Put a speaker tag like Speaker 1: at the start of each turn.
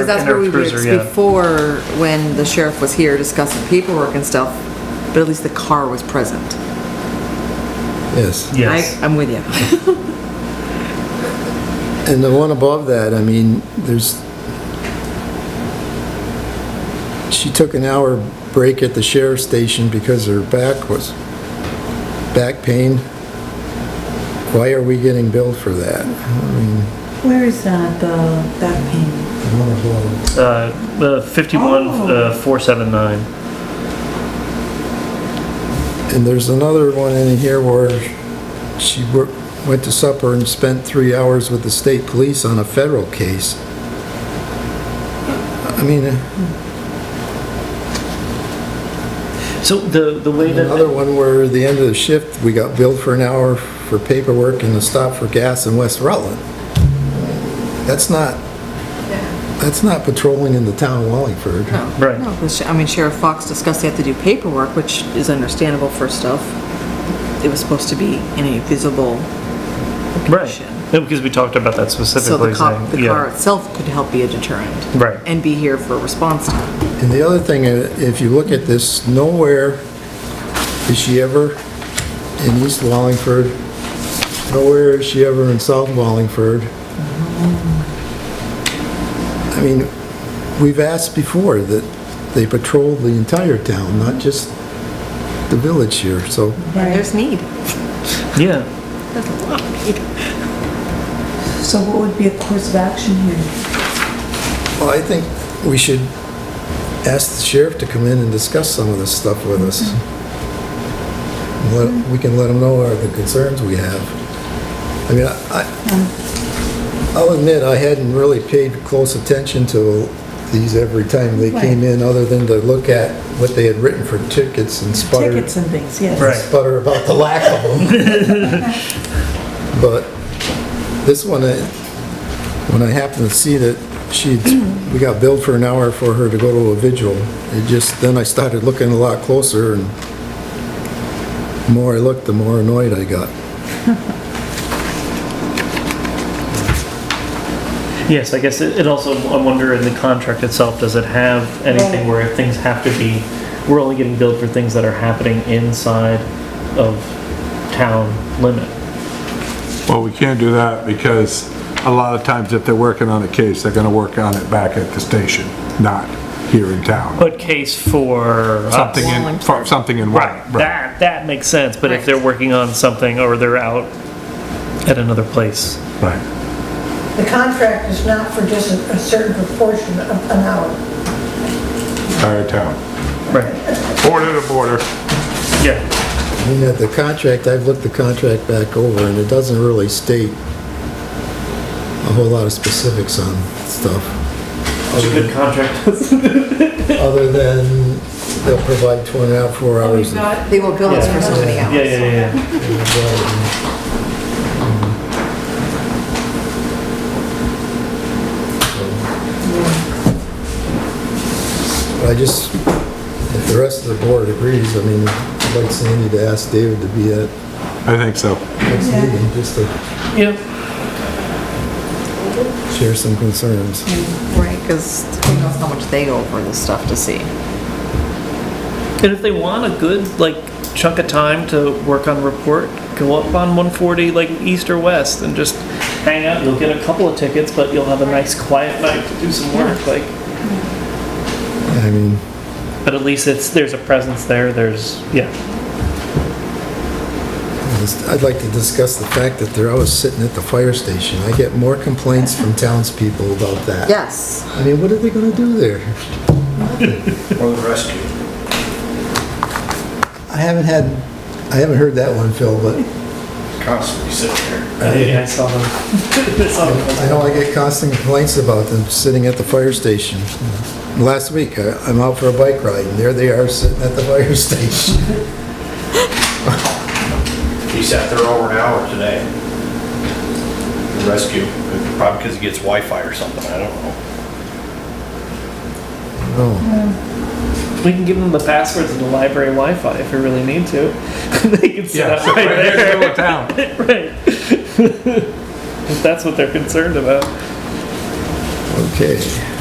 Speaker 1: Because that's where we were
Speaker 2: Cruiser, yeah.
Speaker 1: before, when the sheriff was here discussing paperwork and stuff, but at least the car was present.
Speaker 3: Yes,
Speaker 2: Yes.
Speaker 1: I- I'm with you.
Speaker 3: and the one above that, I mean, there's, she took an hour break at the sheriff's station because her back was, back pain. Why are we getting billed for that? I mean,
Speaker 4: Where is that, the back pain?
Speaker 3: I don't know.
Speaker 2: Uh, uh, 51,
Speaker 1: Oh.
Speaker 2: uh, 479.
Speaker 3: And there's another one in here where she wor- went to supper and spent three hours with the state police on a federal case. I mean,
Speaker 2: So the, the way that.
Speaker 3: another one where at the end of the shift, we got billed for an hour for paperwork and a stop for gas in West Rutland. That's not, that's not patrolling in the town of Wallingford.
Speaker 2: Right.
Speaker 1: No, but sh- I mean, Sheriff Fox discussed they have to do paperwork, which is understandable for stuff. It was supposed to be in a visible
Speaker 2: Right.
Speaker 1: location.
Speaker 2: No, because we talked about that
Speaker 1: So the
Speaker 2: specifically.
Speaker 1: car,
Speaker 2: saying-
Speaker 1: the
Speaker 2: yeah.
Speaker 1: car itself could help be a deterrent.
Speaker 2: Right.
Speaker 1: And be here for response time.
Speaker 3: And the other thing, uh, if you look at this, nowhere is she ever in East Wallingford, nowhere is she ever in South Wallingford. I mean, we've asked before that they patrol the entire town, not just the village here, so
Speaker 1: And there's need.
Speaker 2: Yeah.
Speaker 1: There's a lot of need.
Speaker 4: So what would be a course of action here?
Speaker 3: well, I think we should ask the sheriff to come in and discuss some of this stuff with us. Let- We can let him know our- the concerns we have. I mean, I, I'll admit, I hadn't really paid close attention to these every time they came in, other than to look at what they had written for tickets and sputter.
Speaker 4: Tickets and things, yes.
Speaker 2: Right.
Speaker 3: sputter about the lack of them. But this one, I- when I happened to see that she, we got billed for an hour for her to go to a vigil, it just, then I started looking a lot closer, and the more I looked, the more annoyed I got.
Speaker 2: Yes, I guess it, it also, I wonder in the contract itself, does it have anything where things have to be, we're only getting billed for things that are happening inside of town limit?
Speaker 5: Well, we can't do that because a lot of times if they're working on a case, they're gonna work on it back at the station, not here in town.
Speaker 2: But case for us.
Speaker 5: Something in, for- something in.
Speaker 2: Right, that, that makes sense, but if
Speaker 1: Right.
Speaker 2: they're working on something or they're out at another place,
Speaker 5: Right.
Speaker 6: The contract is not for just a a certain proportion of an hour.
Speaker 5: Entire town.
Speaker 2: right,
Speaker 5: Border to border.
Speaker 2: yeah,
Speaker 3: I mean, at the contract, I've looked the contract back over, and it doesn't really state a whole lot of specifics on stuff.
Speaker 2: it's a good contract.
Speaker 3: Other than they'll provide 24 four hours. of-
Speaker 1: They will bill us for so many
Speaker 2: Yeah,
Speaker 1: hours.
Speaker 2: yeah, yeah, yeah.
Speaker 3: I just, if the rest of the board agrees, I mean, I'd like Sandy to ask David to be at
Speaker 5: I think so.
Speaker 3: next meeting, just to
Speaker 2: Yeah,
Speaker 3: share some concerns.
Speaker 1: Right, because who knows how much they go over this stuff to see.
Speaker 2: and if they want a good, like, chunk of time to work on report, go up on 140, like, east or west, and just hang out, you'll get a couple of tickets, but you'll have a nice quiet night to do some work, like,
Speaker 3: I mean,
Speaker 2: but at least it's, there's a presence there, there's, yeah,
Speaker 3: I'd like to discuss the fact that they're always sitting at the fire station. I get more complaints from townspeople about that.
Speaker 1: Yes.
Speaker 3: I mean, what are they gonna do there?
Speaker 7: Or the rescue.
Speaker 3: I haven't had, I haven't heard that one, Phil, but
Speaker 7: Constantly sitting there.
Speaker 2: I saw them. I saw them.
Speaker 3: I know I get constant complaints about them sitting at the fire station. Last week, I- I'm out for a bike ride, and there they are sitting at the fire station.
Speaker 7: He sat there over an hour today. The Rescue, probably because he gets Wi-Fi or something, I don't know.
Speaker 3: Oh.
Speaker 2: We can give them the passwords to the library Wi-Fi if we really need to. they can sit
Speaker 5: Yeah,
Speaker 2: up
Speaker 5: so
Speaker 2: right
Speaker 5: right there in the middle
Speaker 2: there,
Speaker 5: of town.
Speaker 2: right? if that's what they're concerned about.
Speaker 3: Okay.